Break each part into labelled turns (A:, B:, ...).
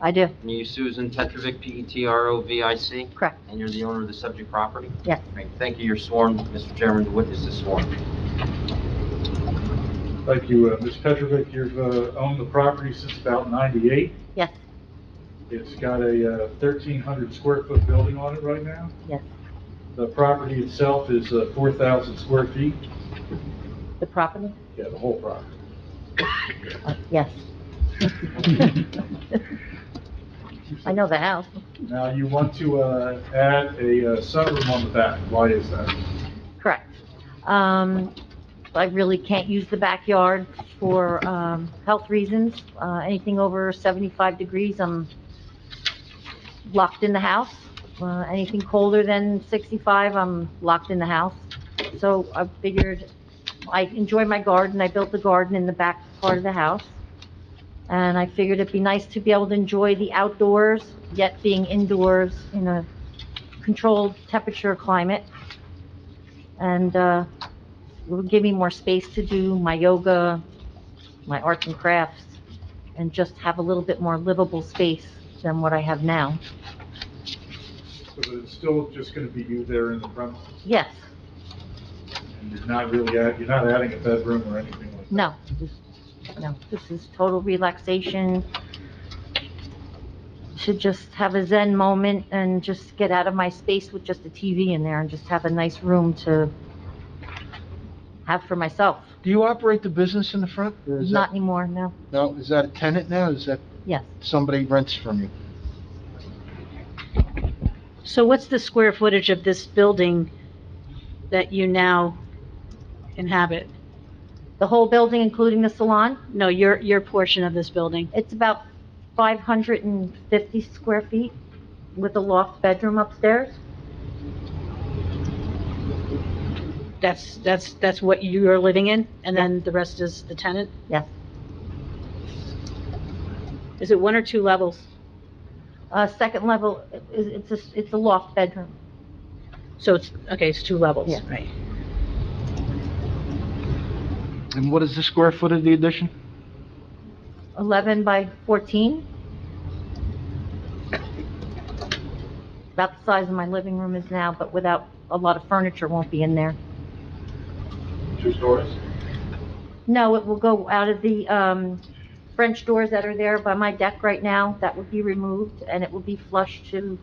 A: I do,
B: And you Susan E Petrovic, P-E-T-R-O-V-I-C?
A: correct.
B: And you're the owner of the subject property?
A: Yes.
B: Great. Thank you. You're sworn, Mr. Chairman. The witness is sworn.
C: Thank you, uh, Ms. Petrovic, you've uh, owned the property since about 98.
A: Yes,
C: It's got a uh, 1,300 square foot building on it right now.
A: yes.
C: The property itself is uh, 4,000 square feet,
A: The property?
C: yeah, the whole property.
A: Uh, Yes. I know the house.
C: Now, you want to uh, add a uh, sunroom on the back, why is that?
A: Correct. Um, I really can't use the backyard for, um, health reasons. Uh, anything over 75 degrees, I'm locked in the house. Uh, anything colder than 65, I'm locked in the house. So I figured, I enjoy my garden, I built the garden in the back part of the house. And I figured it'd be nice to be able to enjoy the outdoors, yet being indoors in a controlled temperature climate and uh, it would give me more space to do my yoga, my arts and crafts, and just have a little bit more livable space than what I have now.
C: So that it's still just going to be you there in the front,
A: Yes,
C: and you're not really, add- you're not adding a bedroom or anything like that?
A: no, this- no, this is total relaxation. Should just have a zen moment and just get out of my space with just a TV in there and just have a nice room to have for myself.
D: Do you operate the business in the front? or is
A: Not anymore, no,
D: that- No, is that a tenant now? Is that
A: yes.
D: somebody rents from you?
E: So what's the square footage of this building that you now inhabit?
A: The whole building, including the salon,
E: No, your, your portion of this building.
A: It's about 550 square feet with a loft bedroom upstairs.
E: That's, that's, that's what you are living in, and then the rest is the tenant?
A: Yes.
E: Is it one or two levels?
A: Uh, second level, i- it's, a- it's a loft bedroom.
E: So it's, okay, it's two levels,
A: Yeah.
E: right?
D: And what is the square foot of the addition?
A: 11 by 14. About the size of my living room is now, but without, a lot of furniture won't be in there.
C: Two stories?
A: No, it will go out of the um, French doors that are there by my deck right now. That would be removed, and it will be flush to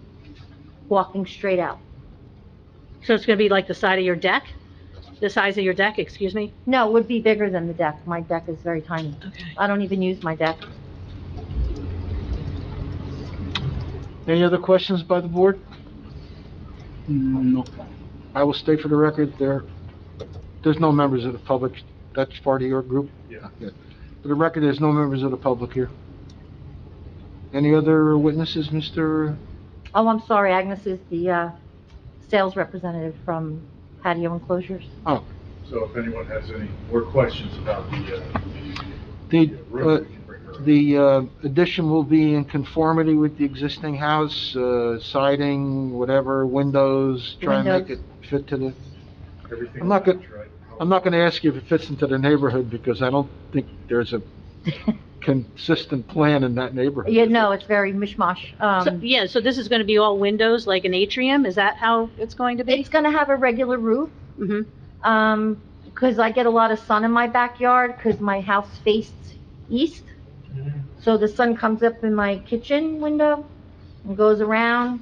A: walking straight out.
E: So it's gonna be like the side of your deck? The size of your deck, excuse me?
A: No, it would be bigger than the deck. My deck is very tiny.
E: Okay.
A: I don't even use my deck.
D: Any other questions by the board? No. I will state for the record, there, there's no members of the public. That's part of your group?
C: Yeah.
D: Okay. For the record, there's no members of the public here. Any other witnesses, Mr.?
A: Oh, I'm sorry, Agnes is the uh, sales representative from patio enclosures.
D: Oh,
C: So if anyone has any more questions about the uh,
D: the, uh,
C: room, we can bring her up.
D: The uh, addition will be in conformity with the existing house, uh, siding, whatever, windows, try and make it
A: Windows.
D: fit to the,
C: Everything
D: I'm not
C: around,
D: good-
C: right?
D: I'm not going to ask you if it fits into the neighborhood because I don't think there's a consistent plan in that neighborhood.
A: Yeah, no, it's very mishmash.
E: So,
A: Um,
E: yeah, so this is gonna be all windows, like an atrium? Is that how it's going to be?
A: It's going to have a regular roof,
E: hmm
A: because I get a lot of sun in my backyard, because my house faced east. So the sun comes up in my kitchen window and goes around.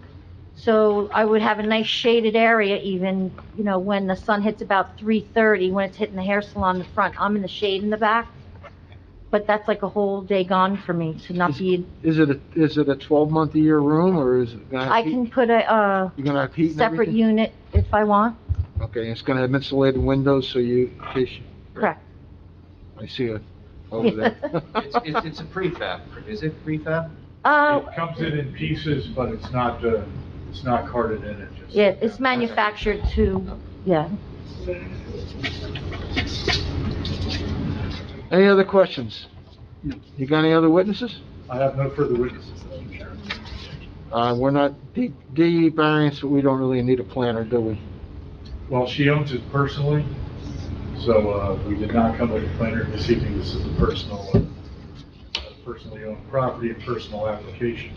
A: So I would have a nice shaded area even, you know, when the sun hits about 3:30, when it's hitting the hair salon in the front, I'm in the shade in the back. But that's like a whole day gone for me to not be,
D: Is it, a- is it a 12-month-a-year room or is it going to
A: I
D: have heat?
A: can put a, uh,
D: You're going to have heat and
A: separate
D: everything?
A: unit if I want,
D: Okay, it's going to have insulated windows so you, in case you-
A: correct.
D: I see it over there.
B: It's, it's it's a prefab. Is it prefab?
A: Uh,
C: It comes in in pieces, but it's not, uh, it's not carted in, it just.
A: yeah, it's manufactured to, yeah.
D: Any other questions? You got any other witnesses?
C: I have no further witnesses, Mr. Chairman.
D: Uh, we're not, D, D variance, we don't really need a planner, do we?
C: Well, she owns it personally, so, uh, we did not come with a planner this evening, this is a personal, uh, personally owned property and personal application.